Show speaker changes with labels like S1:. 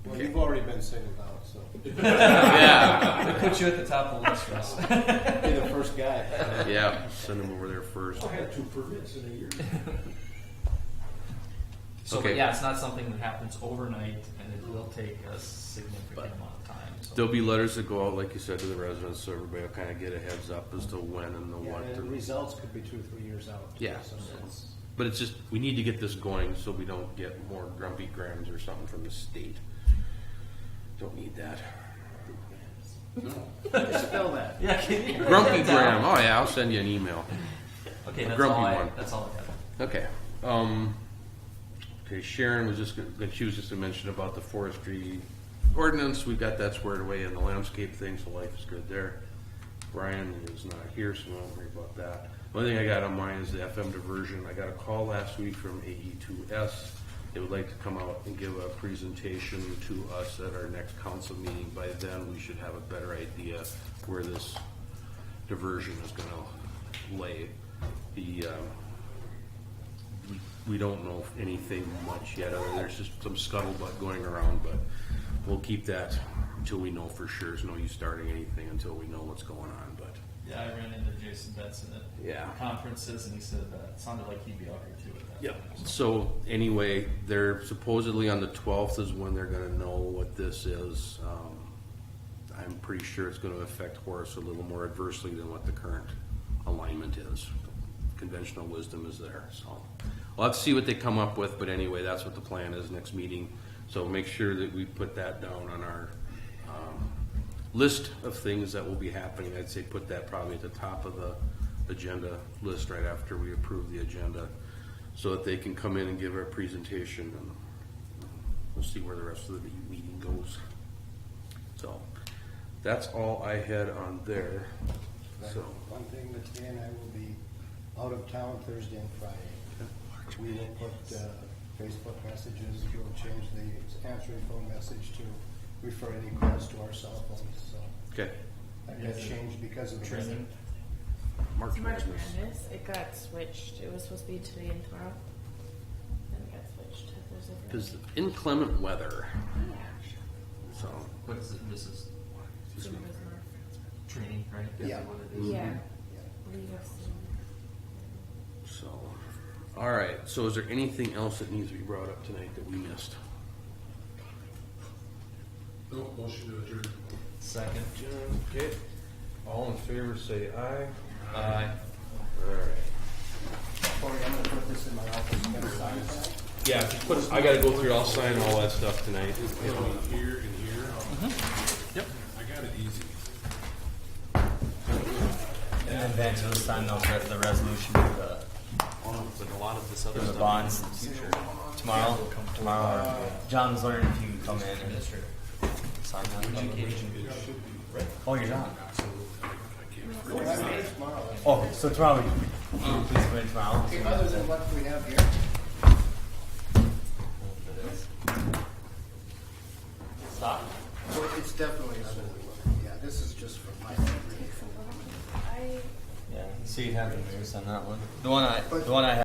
S1: You've already been singled out, so
S2: yeah.
S3: It puts you at the top of the list, Russ.
S1: you're the first guy.
S2: Yeah, send them over there first.
S1: I had two permits in a year.
S3: So,
S2: Okay.
S3: but yeah, it's not something that happens overnight, and it will take a significant amount of time. So.
S2: There'll be letters that go out, like you said, to the residents, so everybody will kind of get a heads up as to when and the what.
S1: And the
S2: to-
S1: results could be two or three years out. too,
S2: Yeah.
S1: so it's-
S2: But it's just, we need to get this going so we don't get more grumpy grams or something from the state. Don't need that.
S1: Spell that.
S3: yeah, can you write
S2: Grumpy
S3: that down?
S2: gram, oh yeah, I'll send you an email. A
S3: Okay, that's
S2: grumpy
S3: all. I,
S2: one.
S3: That's all I have.
S2: Okay, um, okay, Sharon was just, gonna- she was just to mention about the forestry ordinance, we got that squared away and the landscape thing, so life is good there. Brian is not here, so don't worry about that. One thing I got on mine is the FM diversion, I got a call last week from AE two S. They would like to come out and give a presentation to us at our next council meeting, by then we should have a better idea where this diversion is gonna lay. The, um, we- we don't know anything much yet, other there's just some scuttlebutt going around, but we'll keep that until we know for sure, there's no use starting anything until we know what's going on, but,
S3: Yeah, I ran into Jason Benson at
S2: yeah.
S3: conferences, and he said that sounded like he'd be out here too. At that
S2: Yep,
S3: time.
S2: so anyway, they're supposedly on the twelfth is when they're gonna know what this is, um, I'm pretty sure it's gonna affect Horace a little more adversely than what the current alignment is. Conventional wisdom is there, so. We'll have to see what they come up with, but anyway, that's what the plan is next meeting, so make sure that we put that down on our, um, list of things that will be happening, I'd say put that probably at the top of the agenda list right after we approve the agenda, so that they can come in and give our presentation, and we'll see where the rest of the meeting goes. So, that's all I had on there, so.
S1: One thing that Dan and I will be out of town Thursday and Friday. We will put uh, Facebook messages, we'll change the answering phone message to refer any calls to our cell phones, so.
S2: Okay,
S1: That got changed because of the
S3: Training.
S2: March
S4: March
S2: Madness.
S4: Madness. It got switched. It was supposed to be today and tomorrow. Then it got switched to Thursday. Friday.
S2: Because inclement weather, so,
S3: What is it? This is
S4: Yeah. Jim Bismarck.
S3: training, right? Is
S1: Yeah.
S3: that what it is?
S4: Yeah.
S1: Yeah.
S4: League of
S2: so, all right, so is there anything else that needs to be brought up tonight that we missed?
S5: No, motion to adjourn.
S3: Second.
S2: Okay, all in favor, say aye.
S3: Uh,
S2: Alright.
S1: Cory, I'm gonna put this in my office, you gotta sign that.
S2: Yeah, just put, I gotta go through, I'll sign all that stuff tonight.
S5: Here and here.
S3: Yep.
S5: I got it easy.
S6: And then Vance will sign those, re- the resolution for the. For the bonds. Tomorrow, tomorrow, John was wondering if you could come in and sign that. Oh, you're not? Oh, so tomorrow, we- please come in tomorrow.
S1: Okay, Other than what we have here.
S6: Stop.
S1: Well, it's definitely another one. Yeah, this is just for my memory.
S4: I
S6: Yeah, so you have the news on that one. The one I, the one I